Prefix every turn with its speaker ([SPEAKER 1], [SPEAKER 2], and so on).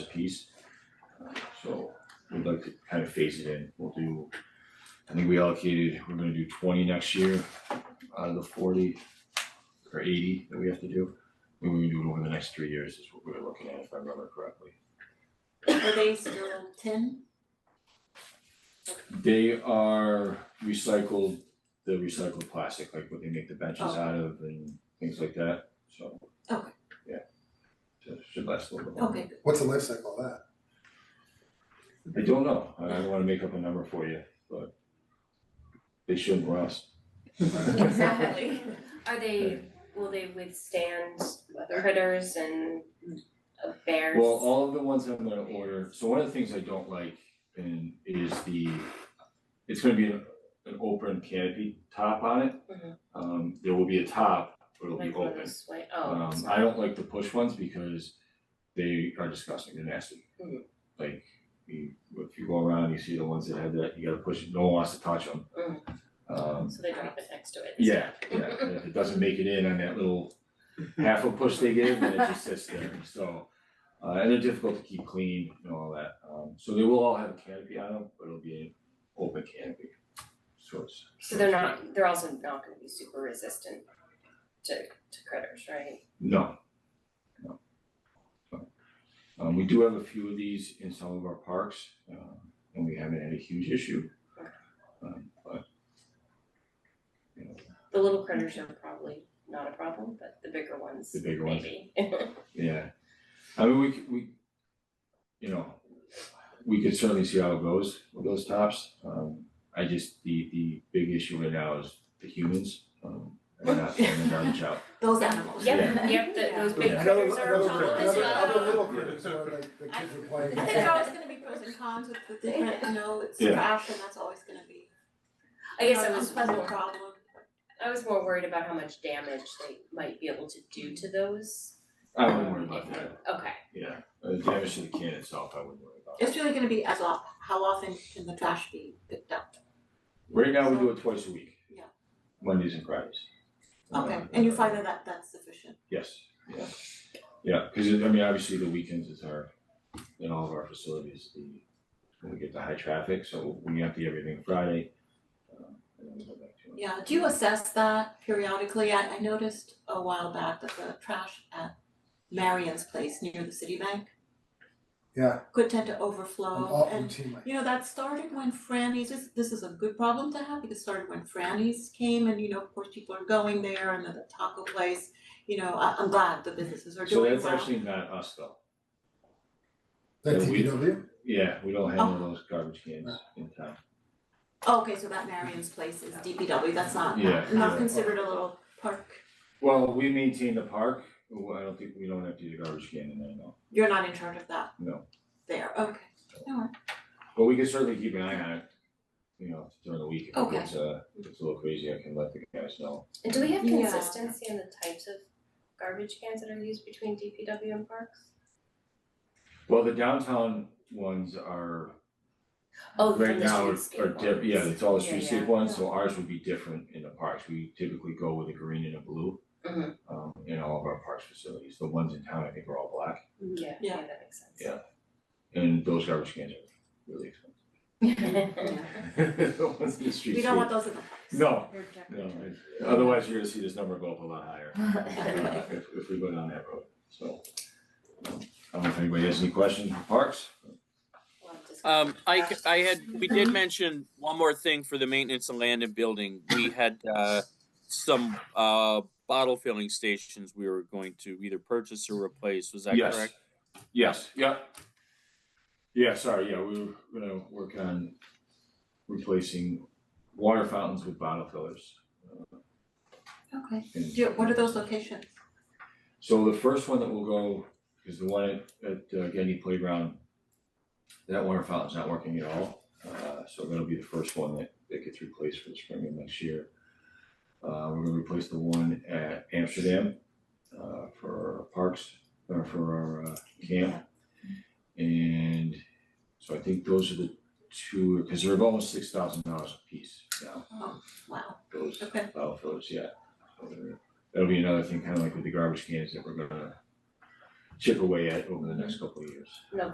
[SPEAKER 1] piece. Uh, So we'd like to kind of phase it in, we'll do, I think we allocated, we're gonna do twenty next year out of the forty or eighty that we have to do. And we're gonna do it over the next three years is what we were looking at, if I remember correctly.
[SPEAKER 2] Are they still tin?
[SPEAKER 1] They are recycled, the recycled plastic, like what they make the benches
[SPEAKER 2] Oh.
[SPEAKER 1] out of and things like that, so.
[SPEAKER 2] Okay.
[SPEAKER 1] Yeah. So it should last a little bit longer.
[SPEAKER 2] Okay, good.
[SPEAKER 3] What's the life cycle of that?
[SPEAKER 1] I don't know, I don't wanna make up a number for you, but they shouldn't rust.
[SPEAKER 4] Exactly. Are they, will they withstand critters and uh, bears?
[SPEAKER 1] Well, all of the ones I'm gonna order, so one of the things I don't like and is the, it's gonna be an an open canopy top on it.
[SPEAKER 4] Mhm.
[SPEAKER 1] Um, there will be a top, but it'll be
[SPEAKER 4] Like one of
[SPEAKER 1] open.
[SPEAKER 4] those white- oh,
[SPEAKER 1] Um, I
[SPEAKER 4] sorry.
[SPEAKER 1] don't like the push ones because they are disgusting, they're nasty.
[SPEAKER 4] Mhm.
[SPEAKER 1] Like, you, if you go around, you see the ones that have that, you gotta push, it. no one wants to touch them.
[SPEAKER 4] Mm-hmm.
[SPEAKER 1] Um,
[SPEAKER 4] So they drop it next to it. and
[SPEAKER 1] yeah, yeah, and if it doesn't make it in on that little half a push they give, then it just sits there, so. Uh, and they're difficult to keep clean and all that, um, so they will all have a canopy on them, but it'll be an open canopy. So it's,
[SPEAKER 4] stuff. So they're not, they're also not gonna be super resistant to to critters, right?
[SPEAKER 1] no, no. So, Um, we do have a few of these in some of our parks, uh, and we haven't had a huge issue. Um, but. You know,
[SPEAKER 4] The little critters are probably not a problem, but the bigger ones,
[SPEAKER 1] The
[SPEAKER 4] maybe.
[SPEAKER 1] bigger ones. Yeah, I mean, we c- we, you know, we could certainly see how it goes with those tops. Um, I just, the the big issue right now is the humans, um, are not throwing the garbage out.
[SPEAKER 2] Those animals.
[SPEAKER 4] Yep, yep, the- those big
[SPEAKER 1] Yeah.
[SPEAKER 4] critters are a problem as
[SPEAKER 3] Another,
[SPEAKER 4] well.
[SPEAKER 3] another, another little critters, or like the kids were playing.
[SPEAKER 2] There's always gonna be pros and cons with the different, you know, it's
[SPEAKER 1] Yeah.
[SPEAKER 2] trash and that's always gonna be
[SPEAKER 4] I guess
[SPEAKER 2] an
[SPEAKER 4] I was
[SPEAKER 2] unpleasant problem.
[SPEAKER 4] I was more worried about how much damage they might be able to do to those.
[SPEAKER 1] I wouldn't worry about that,
[SPEAKER 4] Okay,
[SPEAKER 1] yeah, Uh, the damage to the can itself, I wouldn't worry about.
[SPEAKER 2] It's really gonna be as of, how often can the trash be picked up?
[SPEAKER 1] Right now, we do it twice a week.
[SPEAKER 2] Yeah.
[SPEAKER 1] Mondays and Fridays.
[SPEAKER 2] Okay,
[SPEAKER 1] Uh,
[SPEAKER 2] and you find that that that's sufficient?
[SPEAKER 1] Yes, yeah, yeah, cause it- I mean, obviously the weekends is our, in all of our facilities, the, when we get the high traffic, so we empty everything Friday. um, And then we go back to it.
[SPEAKER 2] Yeah, do you assess that periodically? I I noticed a while back that the trash at Marion's place near the Citibank
[SPEAKER 3] Yeah,
[SPEAKER 2] could tend to
[SPEAKER 3] I'm
[SPEAKER 2] overflow
[SPEAKER 3] all
[SPEAKER 2] and
[SPEAKER 3] routinely.
[SPEAKER 2] You know, that started when Franny's, this, this is a good problem to have because it started when Franny's came and, you know, of course, people are going there and then the taco place, you know, I, I'm glad the businesses are
[SPEAKER 1] So
[SPEAKER 2] doing well.
[SPEAKER 1] that's actually not us though,
[SPEAKER 3] That
[SPEAKER 1] Yeah, we-
[SPEAKER 3] TPW,
[SPEAKER 1] yeah, we don't
[SPEAKER 2] Oh.
[SPEAKER 1] handle those garbage cans in town,
[SPEAKER 2] Okay, so that Marion's place is DPW, that's not,
[SPEAKER 1] Yeah,
[SPEAKER 2] not
[SPEAKER 1] yeah.
[SPEAKER 2] considered a little park,
[SPEAKER 1] well, we maintain the park, well, I don't think, we don't empty the garbage can in there, no,
[SPEAKER 2] you're not in charge of that
[SPEAKER 1] no.
[SPEAKER 2] there, okay.
[SPEAKER 1] But we can certainly keep an eye on it, you know, during the week, if
[SPEAKER 2] Okay.
[SPEAKER 1] it's uh, if it's a little crazy, I can let the guys know.
[SPEAKER 4] and do we have
[SPEAKER 2] Yeah.
[SPEAKER 4] consistency in the types of garbage cans that are used between DPW and parks?
[SPEAKER 1] Well, the downtown ones are
[SPEAKER 4] Oh,
[SPEAKER 1] Right
[SPEAKER 4] from the
[SPEAKER 1] now, it's
[SPEAKER 4] streetscape
[SPEAKER 1] are di- yeah,
[SPEAKER 4] ones.
[SPEAKER 1] it's all the
[SPEAKER 4] Yeah,
[SPEAKER 1] streetscape
[SPEAKER 4] yeah.
[SPEAKER 1] ones, so ours would be different in the parks, we typically go with a green and a blue.
[SPEAKER 4] Mhm.
[SPEAKER 1] Um, in all of our parks facilities, the ones in town, I think are all black,
[SPEAKER 4] Mm-hmm. Yeah, yeah, that makes sense.
[SPEAKER 1] Yeah. and those garbage cans are really expensive. The ones in the streetscape.
[SPEAKER 2] We don't want those in the parks.
[SPEAKER 1] No, no, otherwise you're gonna see this number go up a lot higher, uh, if if we go down that road, so. um, I don't know if anybody has any questions for parks,
[SPEAKER 4] We'll have to discuss.
[SPEAKER 5] Um, I, c- I had, we did mention one more thing for the maintenance of land and building. We had, uh, some, uh, bottle filling stations we were going to either purchase or replace. Was that
[SPEAKER 1] Yes.
[SPEAKER 5] correct?
[SPEAKER 1] Yes, yep. Yeah, sorry, yeah, we were gonna work on replacing water fountains with bottle fillers.
[SPEAKER 2] Okay,
[SPEAKER 1] And-
[SPEAKER 2] do, you- what are those locations?
[SPEAKER 1] So the first one that will go is the one at, at uh, Getty Playground. That water fountain's not working at all, uh, so that'll be the first one that, that gets replaced for the spring of next year. Uh, we're gonna replace the one at Amsterdam, uh, for our parks, or for our, uh, camp. And so I think those are the two, cause they're about six thousand dollars a piece now,
[SPEAKER 2] Wow,
[SPEAKER 1] those
[SPEAKER 2] Okay.
[SPEAKER 1] bottle fillers, yeah. So they're- That'll be another thing, kinda like with the garbage cans that we're gonna chip away at over the next couple of years.
[SPEAKER 4] No